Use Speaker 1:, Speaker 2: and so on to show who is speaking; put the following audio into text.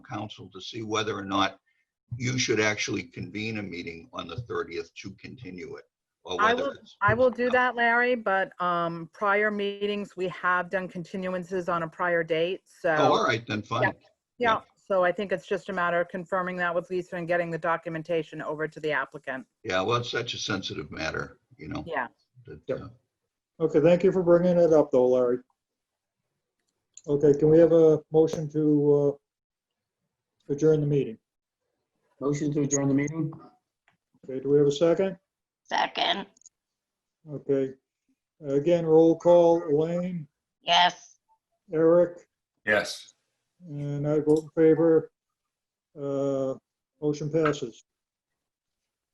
Speaker 1: council to see whether or not you should actually convene a meeting on the 30th to continue it. or
Speaker 2: I
Speaker 1: whether
Speaker 2: will-
Speaker 1: it's-
Speaker 2: I will do that, Larry, but um, prior meetings, we have done continuances on a prior date,
Speaker 1: Oh,
Speaker 2: so.
Speaker 1: all right, then fine. yeah.
Speaker 2: Yeah, so I think it's just a matter of confirming that with Lisa and getting the documentation over to the applicant.
Speaker 1: Yeah, well, it's such a sensitive matter, you know.
Speaker 2: Yeah.
Speaker 1: that,
Speaker 3: Yep.
Speaker 1: uh,
Speaker 3: Okay, thank you for bringing it up though, Larry. Okay, can we have a motion to uh, adjourn the meeting?
Speaker 4: Motion to adjourn the meeting?
Speaker 3: Okay, do we have a second?
Speaker 5: Second,
Speaker 3: Okay. Again, roll call, Elaine,
Speaker 5: yes.
Speaker 3: Eric,
Speaker 6: Yes.
Speaker 3: and I vote in favor. Uh, Motion passes.